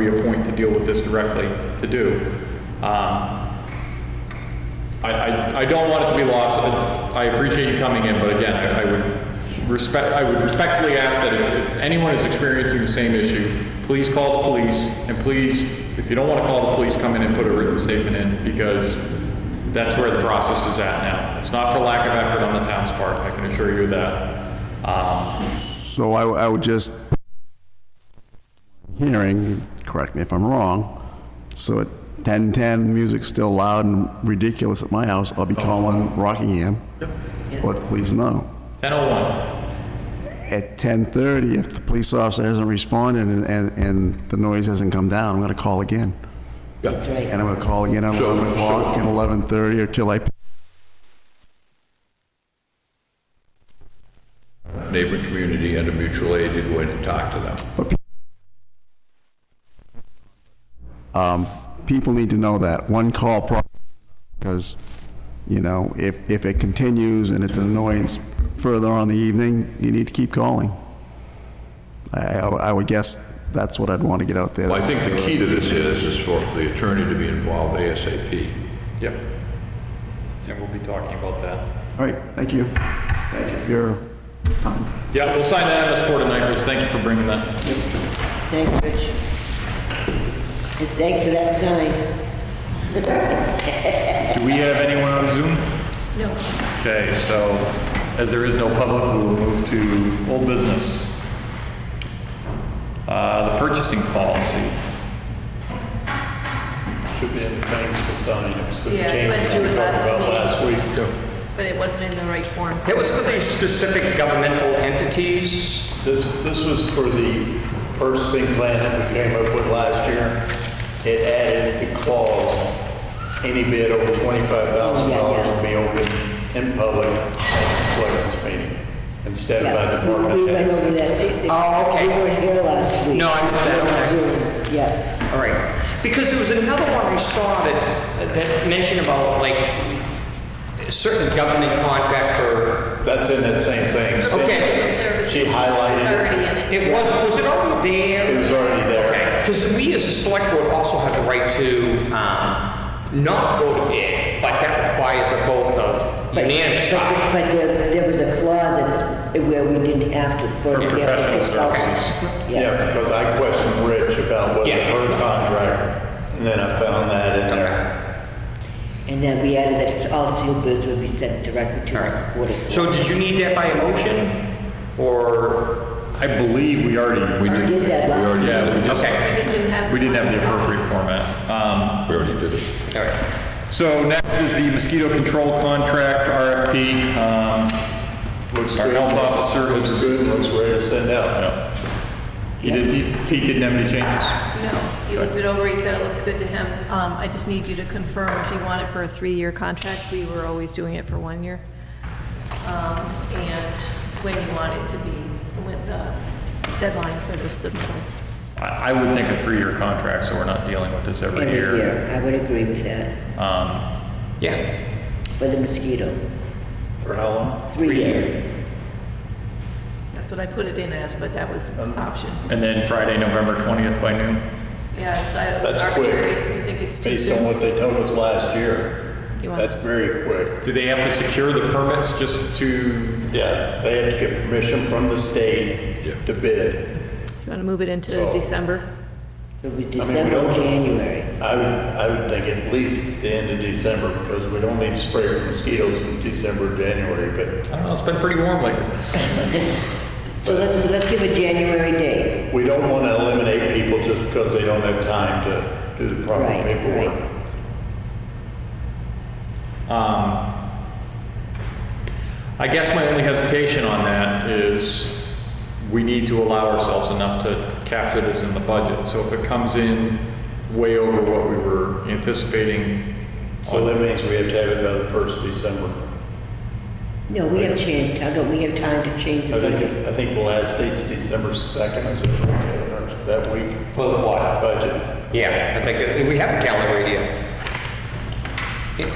reappoint to deal with this directly to do. Um, I, I, I don't want it to be lost. I appreciate you coming in, but again, I, I would respect, I would respectfully ask that if, if anyone is experiencing the same issue, please call the police, and please, if you don't want to call the police, come in and put a written statement in, because that's where the process is at now. It's not for lack of effort on the town's part, I can assure you of that. Um, So I, I would just, hearing, correct me if I'm wrong, so at 10:10, music's still loud and ridiculous at my house, I'll be Oh. calling Rockingham. Let the police know. 10:01, At 10:30, if the police officer hasn't responded and, and, and the noise hasn't come down, I'm gonna call again. That's right. And I'm gonna call again at So- 11 o'clock, so- at 11:30, or till I, neighboring community and a mutual aid to go in and talk to them. um, people need to know that. One call pro, because, you know, if, if it continues and it's an annoyance further on in the evening, you need to keep calling. I, I would guess that's what I'd want to get out there. Well, I think the key to this is, is for the attorney to be involved ASAP. yep. And we'll be talking about that. All right, thank you. Thank you for your time. Yeah, we'll sign that MS4 tonight, Rich, thank you for bringing that. Thanks, Rich. And thanks for that sign. Do we have anyone on Zoom? No. Okay, so as there is no public, we will move to old business. Uh, The purchasing policy. Should be in the things to sign, it's the Yeah, change went through we it talked last about meeting. last week. But it wasn't in the right form. That was for these specific governmental entities. This, this was for the purchasing plan that we came up with last year. It added the clause, any bid over twenty-five thousand dollars will be open in public at the selectmen's meeting, instead of by Yeah, we- department we went over heads. that. They- they- Oh, okay. They weren't here last week. No, I missed that, okay. Zoom, Yeah. All right. Because there was another one I saw that, that mentioned about like a certain government contract for, That's in that same thing. See, Okay. Services. She highlighted It's it. already in it. it was, was it already It there? was already there. Okay, because we as a select board also have the right to, um, not go to bid, but that requires a vote of But- unanimous. But, vote. but there, there was a clause that's, where we didn't have to, for For example, professional consultants. Yeah, Yes. because I questioned Rich about whether Yeah. her contract, and then I found that in there. And then we added that it's all sealed bids would be sent directly to All the right. board of So selectmen. did you need that by a motion or? I believe we already, We We did that last already yeah, we did it. just, Okay. We just didn't have. we didn't have the appropriate format. Um, We already did it. All right. So next is the mosquito control contract, RFP. um, Looks Our good. health officer Looks is- good, looks ready to send out. He didn't, he- he didn't have any changes. No, he looked it over, he said it looks good to him. Um, I just need you to confirm if you want it for a three-year contract. We were always doing it for one year. Um, and when you want it to be, with the deadline for the submittals. I I would think a three-year contract, so we're not dealing with this every Every year. year, I would agree with that, Um, Yeah. for the mosquito, For how long? three year. That's what I put it in as, but that was an option. And then Friday, November 20th by noon. Yeah, it's I- That's quick. arbitrary. You think it's too Based on soon? what they told us last year. You want- That's very quick. Do they have to secure the permits just to, Yeah, they have to get permission from the state Yeah. to bid. You want to move it into So- December? It was we December, don't- January. I would, I would think at least the end of December because we don't need to spray for mosquitoes in December, January, I don't know, it's been pretty warm lately. So let's, let's give a January date. but we don't want to eliminate people just because they don't have time to do the proper Right, paperwork. right. Um, I guess my only hesitation on that is we need to allow ourselves enough to capture this in the budget. So if it comes in way over what we were anticipating, So that means we have to have it by the first December. No, we have changed, I don't, we have time to change the I budget. think, I think the last date's December 2nd, is it, or that week, For the what? budget. Yeah, I think that, we have the calendar right here. Yeah,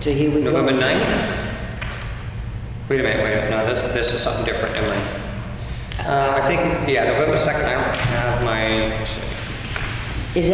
So here we go. November 9th? Wait a minute, wait a minute, no, this, this is something different, never mind. Uh, I think, yeah, November 2nd, I don't have my,